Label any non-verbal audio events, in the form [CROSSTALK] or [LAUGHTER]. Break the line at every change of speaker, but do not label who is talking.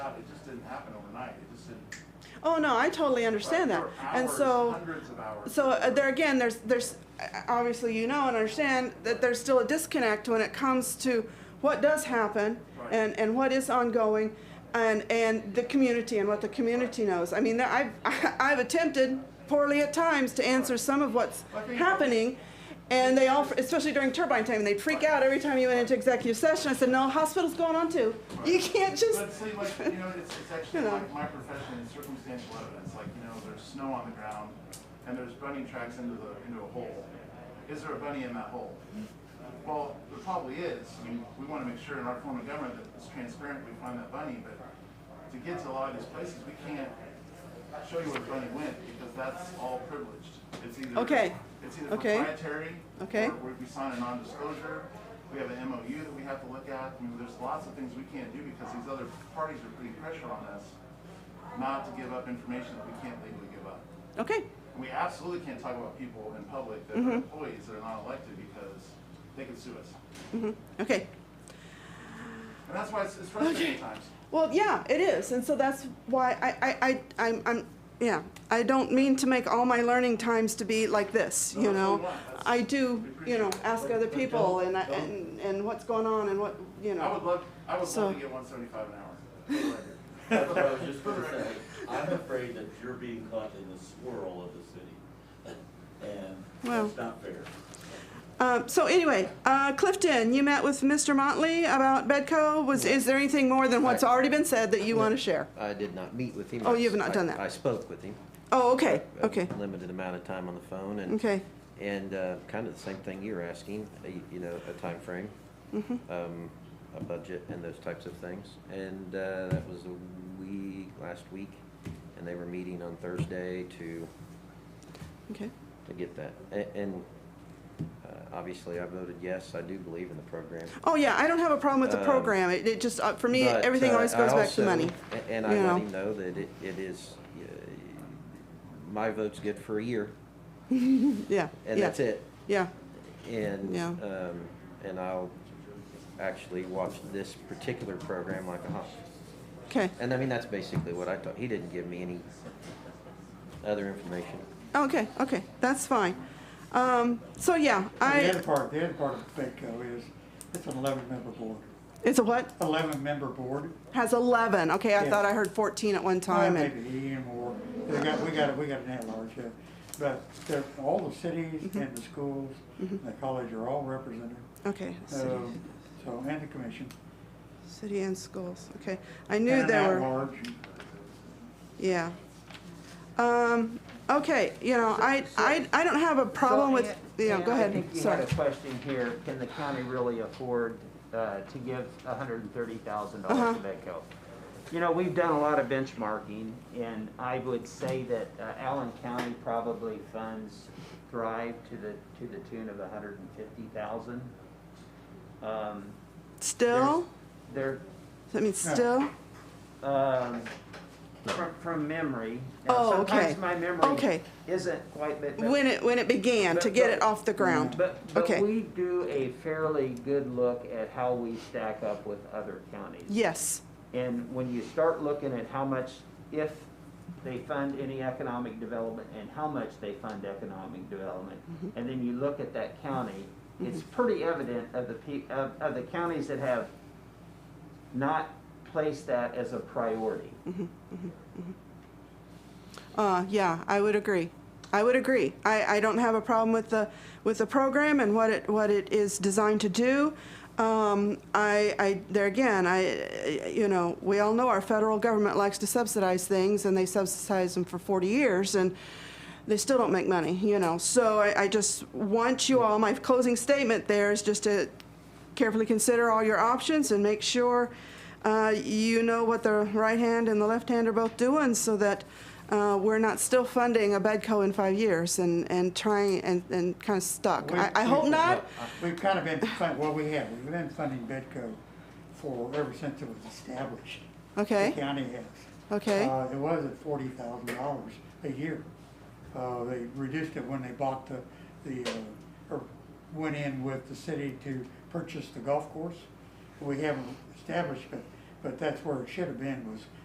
it just didn't happen overnight, it just didn't.
Oh, no, I totally understand
There
that.
were
And
hours,
so,
Hundreds of hours.
so uh, there again, there's, there's, uh, obviously you know and understand that there's still a disconnect when it comes to what does happen
Right.
and, and what is ongoing and, and the community and what the community knows. I mean, there- I've, I've [LAUGHS] attempted poorly at times to answer some of what's
I think-
happening. And they all, especially during turbine time, they'd freak out every time you went into executive session. I said, no, hospital's going on too. You can't just,
But see, like, you know, it's,
[LAUGHS]
it's actually
You know.
like my profession is circumstantial evidence, like, you know, there's snow on the ground and there's bunny tracks into the, into a hole. Is there a bunny in that hole? Well, there probably is, I mean, we wanna make sure in our form of government that it's transparent, we find that bunny, but to get to a lot of these places, we can't show you where the bunny went, because that's all privileged. It's either,
Okay.
it's either
Okay.
proprietary,
Okay.
or we- we sign a non-disclosure, we have an MOU that we have to look at, I mean, there's lots of things we can't do because these other parties are putting pressure on us not to give up information that we can't legally give up.
okay,
And we absolutely can't talk about people in public that
Mm-hmm.
are employees that are not elected because they could sue us.
okay.
And that's why it's it's frustrating at times.
Well, yeah, it is, and so that's why I, I, I I'm, I'm, yeah, I don't mean to make all my learning times to be like this,
No,
you
that's what
know.
we want. That's-
I do, you know, ask other
But
people
don't-
and, I-
don't-
and, and what's going on and what, you
I would
know.
love, I would
So-
love to get one seventy-five an hour.
[LAUGHS]
That's what I was just gonna say. I'm afraid that you're being caught in the swirl of the city. And
Well.
that's not fair.
Uh, so anyway, uh, Clifton, you met with Mr. Motley about Bedco, was, is there anything more than what's
I-
already been said that you wanna share?
I did not meet with him.
Oh,
I-
you have not
I-
done that.
I spoke with him.
Oh, okay,
a- a
okay,
Limited amount of time on the phone and.
okay,
And uh, kind of the same thing you're asking, a- you know, a timeframe,
Mm-hmm.
um, a budget and those types of things. And uh, that was a week, last week, and they were meeting on Thursday to,
okay,
to get that. A- And uh, obviously, I voted yes, I do believe in the program.
oh, yeah, I don't have a problem with the
Um,
program, it, it just, uh, for me,
But,
everything
uh,
always
I
goes back to
also-
money.
a- And
you
I
know.
let him know that it, it is, uh, my vote's good for a year,
Yeah,
and
yeah,
that's it.
yeah,
And,
Yeah.
um, and I'll actually watch this particular program like a hawk.
okay.
And I mean, that's basically what I thought. He didn't give me any other information.
Okay, okay, that's fine. Um, so yeah,
The other
I,
part, the other part of FACO is, it's an eleven-member board.
it's a what?
Eleven-member board.
Has eleven, okay, I
Yeah.
thought I heard fourteen at one time
Well,
and,
Maybe even more. They got, we got, we got an at-large here. But they're, all the cities
Mm-hmm.
and the schools, and the college are all represented.
okay. city-
Um, So, and the commission.
City and schools, okay. I
and
knew
an
there were,
at-large.
yeah. Um, okay, you know, I, I, I don't have a problem
So,
with,
Ann-
yeah,
Ann,
go
I
ahead,
think you had
sorry.
a question here, can the county really afford uh, to give hundred and thirty thousand
Uh-huh.
dollars to Medco? You know, we've done a lot of benchmarking, and I would say that uh, Allen County probably funds Thrive to the, to the tune of hundred and fifty thousand. Um,
Still?
They're,
That means still?
um, from, from memory. Now,
Oh, okay.
Sometimes my memory
Okay.
isn't quite, but. but-
When it, when it began, to
But-
get
but-
it off the ground.
Mm, But, but
Okay.
we do a fairly good look at how we stack up with other counties.
Yes,
And when you start looking at how much, if they fund any economic development and how much they fund economic development,
Mm-hmm.
and then you look at that county, it's pretty evident of the pe- of, of the counties that have not placed that as a priority.
Uh, yeah, I would agree. I would agree. I, I don't have a problem with the, with the program and what it, what it is designed to do. Um, I, I, there again, I, you know, we all know our federal government likes to subsidize things and they subsidize them for forty years and they still don't make money, you know. So I, I just want you all, my closing statement there is just to carefully consider all your options and make sure uh, you know what the right hand and the left hand are both doing so that uh, we're not still funding a Bedco in five years and, and trying and, and kind of stuck. I, I
We've-
hope
we've-
not.
We've kind of been, fun- well, we have, we've been funding Bedco for, ever since it was established.
Okay.
The county has.
Okay.
Uh, it was at forty thousand dollars a year. Uh, they reduced it when they bought the, the, uh, or went in with the city to purchase the golf course. We haven't established, but, but that's where it should have been, was